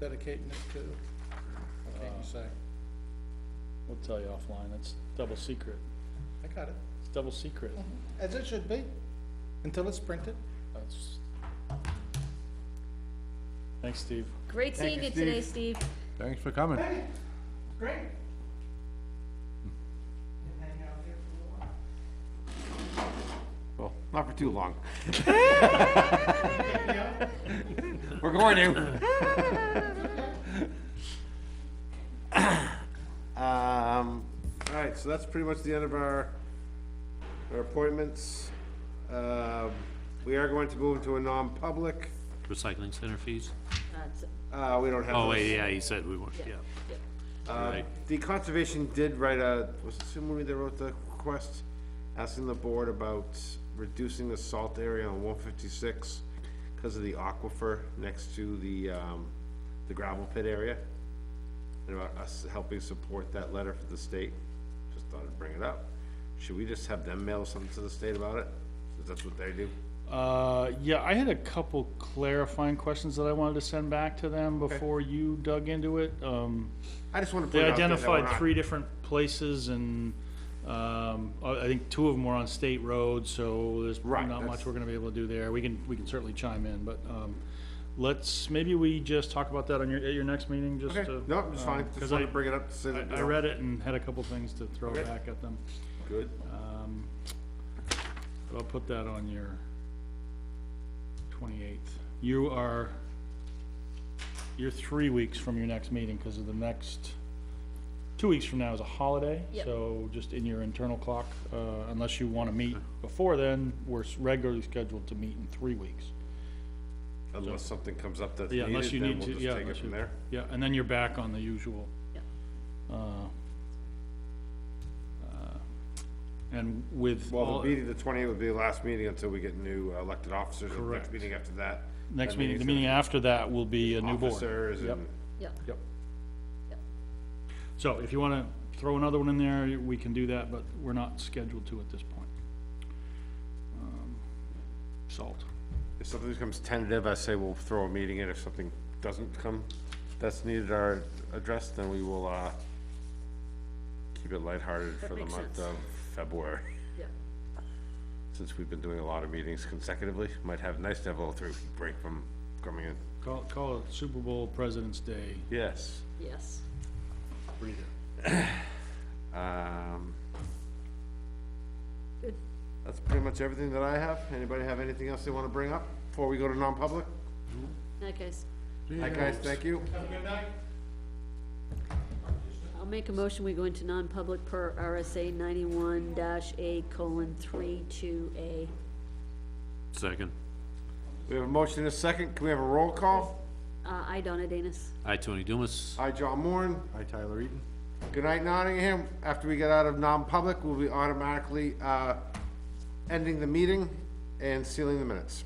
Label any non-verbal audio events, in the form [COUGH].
dedicating it to? What can't you say? We'll tell you offline, that's double secret, I got it, it's double secret, as it should be, until it's printed. that's. Thanks, Steve. Great seeing you today, Steve. Thanks for coming. Great. Well, not for too long. We're going to. Um, all right, so that's pretty much the end of our, our appointments. Um, we are going to move into a non-public. Recycling center fees? Uh, it's- Uh, we don't have. Oh, those. wait, yeah, he said we weren't, yeah. Uh, Right. The conservation did write a, was it Sumari that wrote the request, asking the board about reducing the salt area on one fifty-six because of the aquifer next to the, um, the gravel pit area? And about us helping support that letter for the state, just thought I'd bring it up. Should we just have them mail something to the state about it? Since that's what they do? Uh, yeah, I had a couple clarifying questions that I wanted to send back to them before you dug into it, um. I just wanna put They it out there that we're identified not- three different places and, um, I I think two of them were on state roads, so there's Right, not much that's- we're gonna be able to do there. We can, we can certainly chime in, but, um, let's, maybe we just talk about that on your, at your next meeting, just Okay, to. no, it's fine, um, just 'cause wanted I- to bring it up, to say that. I, I read it and had a couple things to throw Okay. back at them. Good. Um, But I'll put that on your twenty-eighth. You are, you're three weeks from your next meeting, because of the next, two weeks from now is a holiday. Yep. So just in your internal clock, uh, unless you want to meet before then, we're s- regularly scheduled to meet in three weeks. Unless something comes up that's Yeah, unless you needed, then need we'll to, yeah. just take it unless from you- there. Yeah, and then you're back on the usual. Yep. uh, uh, And with Well, all, the meeting, the twentieth would be the last meeting until we get new uh, elected officers, and the next Correct. meeting after that. next that meeting, the meeting's meeting gonna after that will be a be new board. Officers Yep. and, Yep, Yep. Yep. So if you wanna throw another one in there, we can do that, but we're not scheduled to at this point. Um, Salt. if something becomes tentative, I say we'll throw a meeting in, if something doesn't come, that's needed or addressed, then we will, uh, keep it lighthearted That for the makes month sense. of February, [LAUGHS] yep. since we've been doing a lot of meetings consecutively, might have, nice to have a little three-week break from coming in. Call, call it Super Bowl President's Day Yes. yes. breather. Um, Good. That's pretty much everything that I have. Anybody have anything else they want to bring up before we go to non-public? That guy's, Hi, guys, thank you. I'll make a motion, we go into non-public per RSA ninety-one dash A colon three two A. Second. We have a motion and a second. Can we have a roll call? Uh, I, Donna Danus. Aye, Tony Dumas. Hi, John Moore. Hi, Tyler Eaton. Good night, Nottingham. After we get out of non-public, we'll be automatically uh, ending the meeting and sealing the minutes.